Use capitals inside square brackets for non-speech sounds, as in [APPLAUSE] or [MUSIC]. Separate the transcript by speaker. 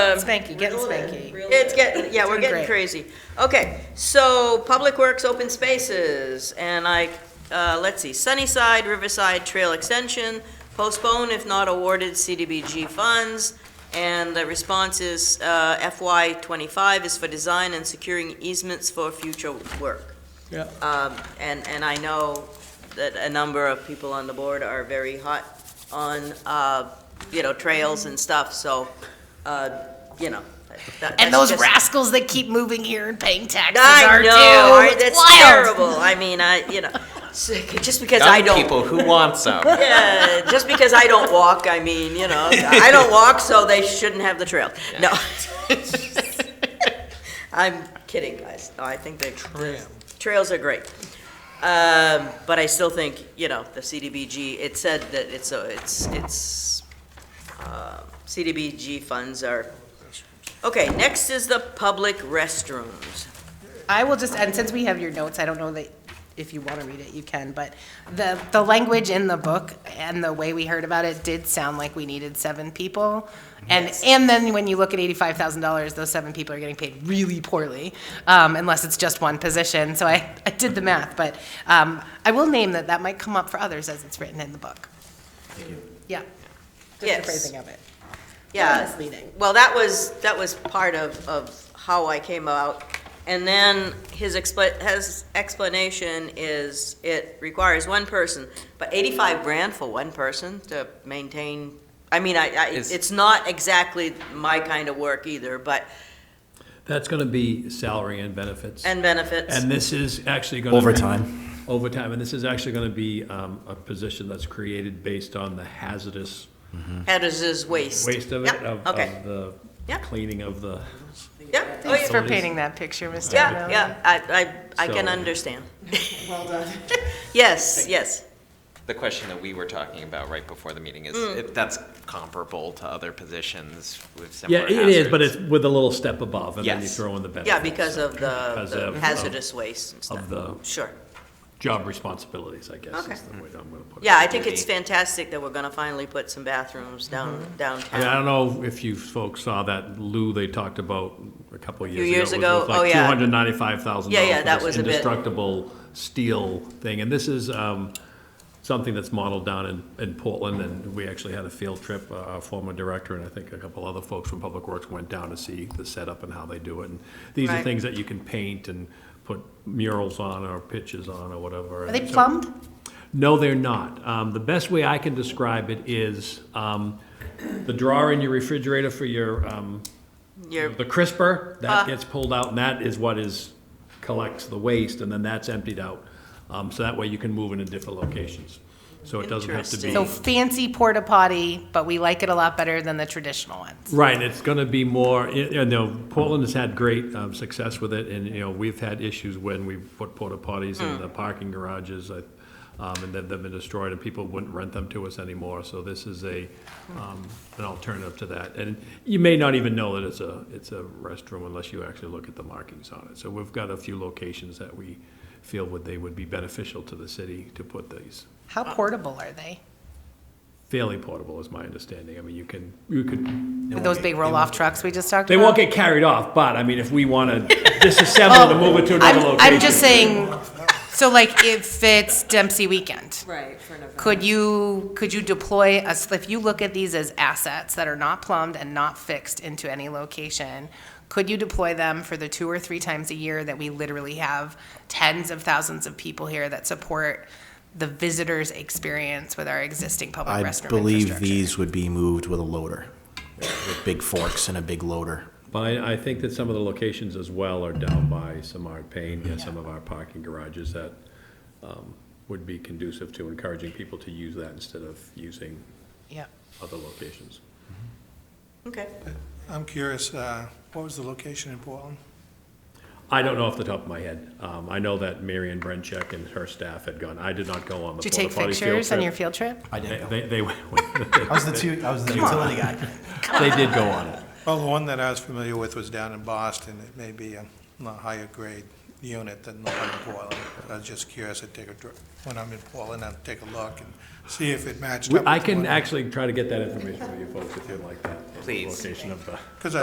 Speaker 1: Um,
Speaker 2: Spanky, getting spanky.
Speaker 1: It's getting, yeah, we're
Speaker 2: Doing
Speaker 1: getting
Speaker 2: great.
Speaker 1: crazy. Okay, so Public Works Open Spaces, and I, uh, let's see, Sunnyside Riverside Trail Extension, postpone if not awarded CDBG funds, and the response is uh, FY twenty-five is for design and securing easements for future work.
Speaker 3: Yeah.
Speaker 1: Um, And, and I know that a number of people on the board are very hot on, uh, you know, trails and stuff, so, uh, you know. that-
Speaker 2: And
Speaker 1: that's
Speaker 2: those
Speaker 1: just-
Speaker 2: rascals that keep moving here and paying taxes
Speaker 1: I
Speaker 2: are
Speaker 1: know,
Speaker 2: too.
Speaker 1: I-
Speaker 2: It's
Speaker 1: that's
Speaker 2: wild.
Speaker 1: terrible. I mean, I, you know, so- just because I
Speaker 4: Young
Speaker 1: don't,
Speaker 4: people who want
Speaker 3: [LAUGHS]
Speaker 4: some.
Speaker 1: [LAUGHS] yeah, just because I don't walk, I mean, you know, I don't walk, so they shouldn't have the trail. No. [LAUGHS] I'm kidding, guys. No, I think they trails are great. Um, but I still think, you know, the CDBG, it said that it's, a- it's, it's, uh, CDBG funds are, okay, next is the public restrooms.
Speaker 2: I will just, and since we have your notes, I don't know that if you want to read it, you can, but the, the language in the book and the way we heard about it did sound like we needed seven people. And, and then when you look at eighty-five thousand dollars, those seven people are getting paid really poorly, um, unless it's just one position. So I, I did the math, but, um, I will name that that might come up for others as it's written in the book. Yeah. Just the
Speaker 1: Yes.
Speaker 2: phrasing of it.
Speaker 1: Yeah.
Speaker 2: Misleading.
Speaker 1: Well, that was, that was part of, of how I came out. And then his expla, his explanation is it requires one person, but eighty-five grand for one person to maintain, I mean, I, I,
Speaker 4: Is-
Speaker 1: it's not exactly my kind of work either, but,
Speaker 3: That's gonna be salary and benefits.
Speaker 1: and benefits.
Speaker 3: And this is actually gonna. be-
Speaker 4: Overtime.
Speaker 3: Overtime, and this is actually gonna be, um, a position that's created based on the hazardous
Speaker 1: How does this waste?
Speaker 3: waste of it,
Speaker 1: Yep,
Speaker 3: of,
Speaker 1: Okay,
Speaker 3: of the
Speaker 1: Yep.
Speaker 3: cleaning of the.
Speaker 1: yeah, oh,
Speaker 2: Thanks
Speaker 1: yeah,
Speaker 2: for painting that picture, Mr.
Speaker 1: yeah,
Speaker 2: Donnelly.
Speaker 1: yeah, I, I, I can
Speaker 3: So-
Speaker 1: understand. Well done. [LAUGHS] Yes, yes,
Speaker 4: The question that we were talking about right before the meeting is,
Speaker 3: Mm.
Speaker 4: if that's comparable to other positions with similar
Speaker 3: Yeah,
Speaker 4: hazards.
Speaker 3: it is, but it's with a little step above, and then you
Speaker 4: Yes.
Speaker 3: throw in the benefits.
Speaker 1: yeah, because of the
Speaker 3: Because
Speaker 1: the
Speaker 3: of- of-
Speaker 1: hazardous waste and stuff,
Speaker 3: Of the
Speaker 1: sure.
Speaker 3: job responsibilities, I guess,
Speaker 1: Okay.
Speaker 3: is the way that I'm gonna put it.
Speaker 1: Yeah, I think it's
Speaker 4: Maybe.
Speaker 1: fantastic that we're gonna finally put some bathrooms down,
Speaker 3: I mean, I
Speaker 1: downtown.
Speaker 3: don't know if you folks saw that Lou they talked about a couple of years ago.
Speaker 1: Few years
Speaker 3: It was
Speaker 1: ago,
Speaker 3: with
Speaker 1: oh,
Speaker 3: like
Speaker 1: yeah.
Speaker 3: Two hundred ninety-five thousand
Speaker 1: Yeah,
Speaker 3: dollars.
Speaker 1: yeah, that was a bit-
Speaker 3: Indestructible steel thing, and this is, um, something that's modeled down in, in Portland, and we actually had a field trip, uh, our former director and I think a couple other folks from Public Works went down to see the setup and how they do it, and these are
Speaker 1: Right.
Speaker 3: things that you can paint and put murals on or pictures on or whatever.
Speaker 2: Are they
Speaker 3: and so-
Speaker 2: plumbed?
Speaker 3: no, they're not. Um, the best way I can describe it is um, the drawer in your refrigerator for your um,
Speaker 1: Your
Speaker 3: the crisper
Speaker 1: Ah.
Speaker 3: that gets pulled out, and that is what is collects the waste, and then that's emptied out. Um, so that way you can move it in different locations. So it doesn't have to be
Speaker 2: So
Speaker 1: Interesting.
Speaker 2: fancy porta potty, but we like it a lot better than the traditional ones.
Speaker 3: Right, it's gonna be more, y- you know, Portland has had great um, success with it, and, you know, we've had issues when we put porta potties in the parking garages, uh, um, and they've they've been destroyed, and people wouldn't rent them to us anymore, so this is a, um, an alternative to that. And you may not even know that it's a, it's a restroom unless you actually look at the markings on it. So we've got a few locations that we feel would, they would be beneficial to the city to put these
Speaker 2: How portable are they?
Speaker 3: fairly portable, is my understanding. I mean, you can, you could
Speaker 2: With those big roll-off trucks we just talked
Speaker 3: they
Speaker 2: about?
Speaker 3: won't get carried off, but I mean, if we
Speaker 2: [LAUGHS]
Speaker 3: want to disassemble it and move it to another
Speaker 2: Oh, I'm,
Speaker 3: location.
Speaker 2: I'm just saying, so like if it's Dempsey weekend,
Speaker 1: Right, for an event.
Speaker 2: could you, could you deploy us, if you look at these as assets that are not plumbed and not fixed into any location, could you deploy them for the two or three times a year that we literally have tens of thousands of people here that support the visitor's experience with our existing public restroom
Speaker 5: I
Speaker 2: infrastructure?
Speaker 5: believe these would be moved with a loader, with big forks and a big loader.
Speaker 3: But I, I think that some of the locations as well are down by some of our pain, and some of our parking garages that um, would be conducive to encouraging people to use that instead of using
Speaker 2: Yeah.
Speaker 3: other locations.
Speaker 1: Okay,
Speaker 6: I'm curious, uh, what was the location in Portland?
Speaker 3: I don't know off the top of my head. Um, I know that Mary Ann Brencheck and her staff had gone. I did not go on the
Speaker 2: Did you
Speaker 3: porta
Speaker 2: take
Speaker 3: potty field
Speaker 2: pictures on your
Speaker 3: trip.
Speaker 2: field trip?
Speaker 5: I
Speaker 3: They,
Speaker 5: didn't know.
Speaker 3: they, they went-
Speaker 5: I was the two, I was the utility guy.
Speaker 3: they [LAUGHS] did go on it.
Speaker 6: Well, the one that I was familiar with was down in Boston. It may be a a higher grade unit than the one in Portland. I was just curious, I'd take a, dr- when I'm in Portland, I'd take a look and see if it matched up.
Speaker 3: I can actually try to get that information for you folks if you'd like that.
Speaker 4: Please.
Speaker 3: Location of the.
Speaker 6: Because